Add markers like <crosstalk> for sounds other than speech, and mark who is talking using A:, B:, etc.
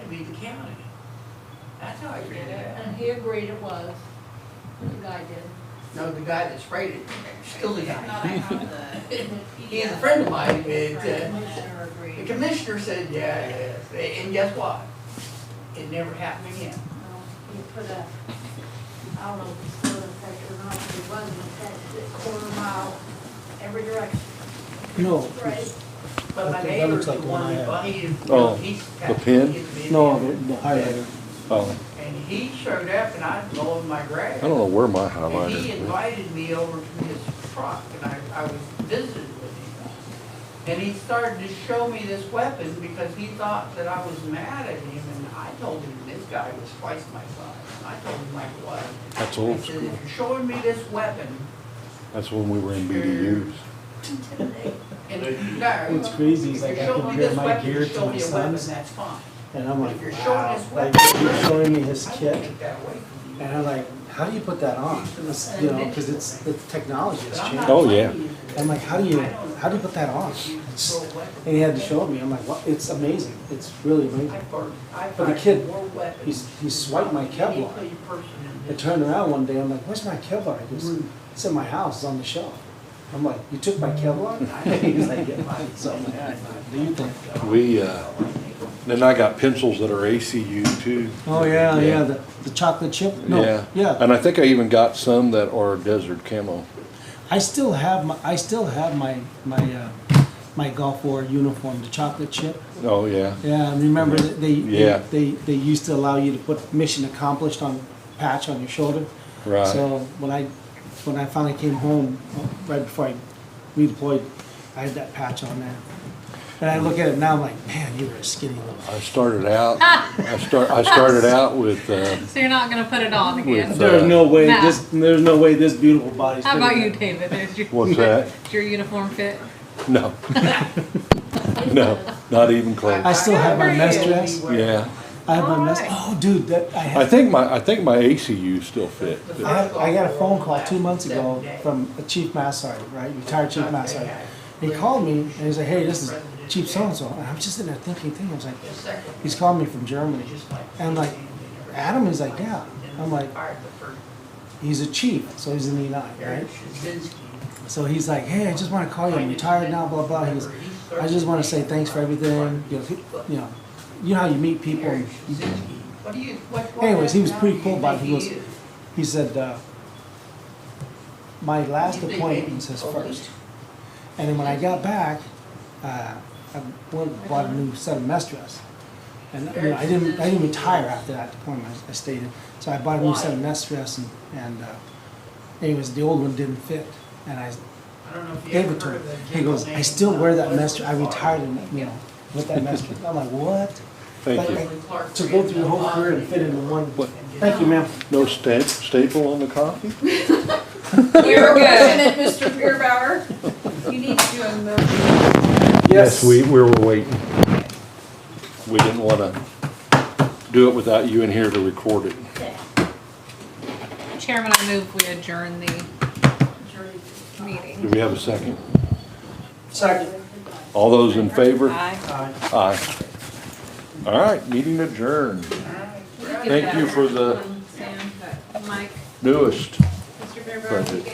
A: be the county. That's how I figured it out.
B: And he agreed it was, the guy did.
A: No, the guy that sprayed it, still the
C: Not
A: guy.
C: I have the.
A: He's a friend of mine, but,
B: The
A: uh,
B: Commissioner
A: the
B: agreed.
A: commissioner said, yeah, it is." and guess what? It never happened again.
B: Well, He put a, I don't know if it's still in effect or not, but it was in effect, a quarter mile every direction.
D: No,
B: Right?
A: But my
D: Okay, that
A: neighbor's
D: looks
A: the
D: like the one
A: one
D: I
A: that,
D: have.
A: bought- he,
E: Oh,
A: he's.
E: the pin?
D: no, the the highlighter.
E: Oh,
A: And he showed up and I blowed my grass.
E: I don't know where my
A: And
E: highlighter
A: he
E: is.
A: invited me over to his truck, and I, I was visited with him. And he started to show me this weapon because he thought that I was mad at him, and I told him this guy was twice my size. And I told him like what?
E: That's
A: I said,
E: old
A: if
E: school.
A: you're showing me this weapon,
E: That's when we were in BDUs.
A: and no.
D: What's crazy is
A: If
D: like
A: you're
D: I
A: showing me
D: compare
A: this
D: my
A: weapon,
D: gear
A: you
D: to
A: show
D: my
A: me a weapon,
D: son's
A: that's fine.
D: and I'm
A: But
D: like,
A: if you're showing
D: wow.
A: this
D: Like
A: weapon.
D: he's showing me his
A: I will
D: kit
A: take that away from you.
D: and I'm like, how do you put that on? It's, You know, because it's, the technology
A: But
D: has
A: I'm
D: changed.
A: not
E: Oh, yeah.
A: playing you for this.
D: I'm like, how do you,
A: I don't-
D: how do you put that on?
A: If you
D: It's-
A: throw a weapon-
D: And he had to show me. I'm like, what? It's amazing. It's really amazing.
A: I've burned, I've
D: But the
A: burned
D: kid,
A: more weapons.
D: He's, he swiped my Kevlar.
A: Any person in
D: I
A: this-
D: turned around one day. I'm like, where's my Kevlar? He goes, it's in my house. It's on the shelf. I'm like, you took my Kevlar? <laughs> He's like, yeah. So I'm like, "All right, what do you think?
E: We, uh, then I got pencils that are ACU too.
D: Oh, yeah, yeah, the, the chocolate chip? No,
E: Yeah.
D: yeah.
E: And I think I even got some that are desert camo.
D: I still have my, I still have my, my, uh, my Gulf War uniform, the chocolate chip.
E: Oh, yeah.
D: Yeah, and remember that they,
E: Mm-hmm. Yeah.
D: they, they used to allow you to put mission accomplished on patch on your shoulder.
E: Right.
D: So when I, when I finally came home, right before I redeployed, I had that patch on there. And I look at it now, I'm like, man, you were a skinny little.
E: I started out, I start, I started out with, uh,
C: So you're not gonna put it on again?
E: With- uh,
D: There's no way,
C: Nah.
D: this, there's no way this beautiful body's.
C: How about
D: fitting
C: you,
D: that.
C: David? There's your.
E: What's that?
C: Is <laughs> Your uniform fit?
E: no, <laughs> no, not even
D: I
E: close.
D: still have my mess dress.
E: Yeah.
D: I have my mess,
C: Alright.
D: oh, dude, that, I
E: I
D: had
E: think my, I think my ACU still fit.
D: I, had, I got a phone call two months ago from a chief mass sergeant, right, retired chief mass sergeant. He called me and he's like, hey, this is Chief so-and-so, and I'm just sitting there thinking, thinking, I was like, he's calling me from Germany. And like, Adam is like, yeah, I'm like, he's a chief, so he's in the E9, right? So he's like, hey, I just wanna call you, "Oh, I'm retired now, blah, blah, he goes, I just wanna say thanks for everything, you know, he- you know, you know how you meet people, and
A: What do you, what, what?
D: Anyways, he was pretty
A: nationality
D: cool about it.
A: do you
D: He
A: think
D: goes- he said, uh, my last
A: You think maybe
D: appointment was his
A: a
D: first.
A: week?
D: And then when I got back, uh, I went and bought a new set of mess dress. And, you know, I didn't, I didn't retire after that appointment, I stayed in. So I bought a new set of mess dress and, and, uh, anyways, the old one didn't fit. And I
A: I don't know if you
D: gave
A: ever
D: it to
A: heard
D: him.
A: of that
D: He goes,
A: gentleman
D: I still wear that
A: named
D: mess, dress. I
A: Leslie
D: retired
A: Clark.
D: in, you know, with that mess dress. I'm like, what?
E: Thank
D: Like,
E: you.
A: Leslie Clark
D: To go through your whole
A: created
D: career and fit into one.
E: What?
D: Thank you, ma'am.
E: No sta- staple on the coffee?
C: You're good.
B: <laughs> Mr. Pierbauer, you need to do a motion.
E: We, we were waiting. We didn't wanna do it without you in here to record it.
C: Chairman, I move we adjourn the meeting.
E: Do we have a second?
D: Second.
E: All those in favor?
C: Aye.
D: Aye.
E: Aye. All right, meeting adjourned. Thank you for the
C: Sam, Mike,
E: newest.
C: Mr. Fairbrother,
E: Perfect.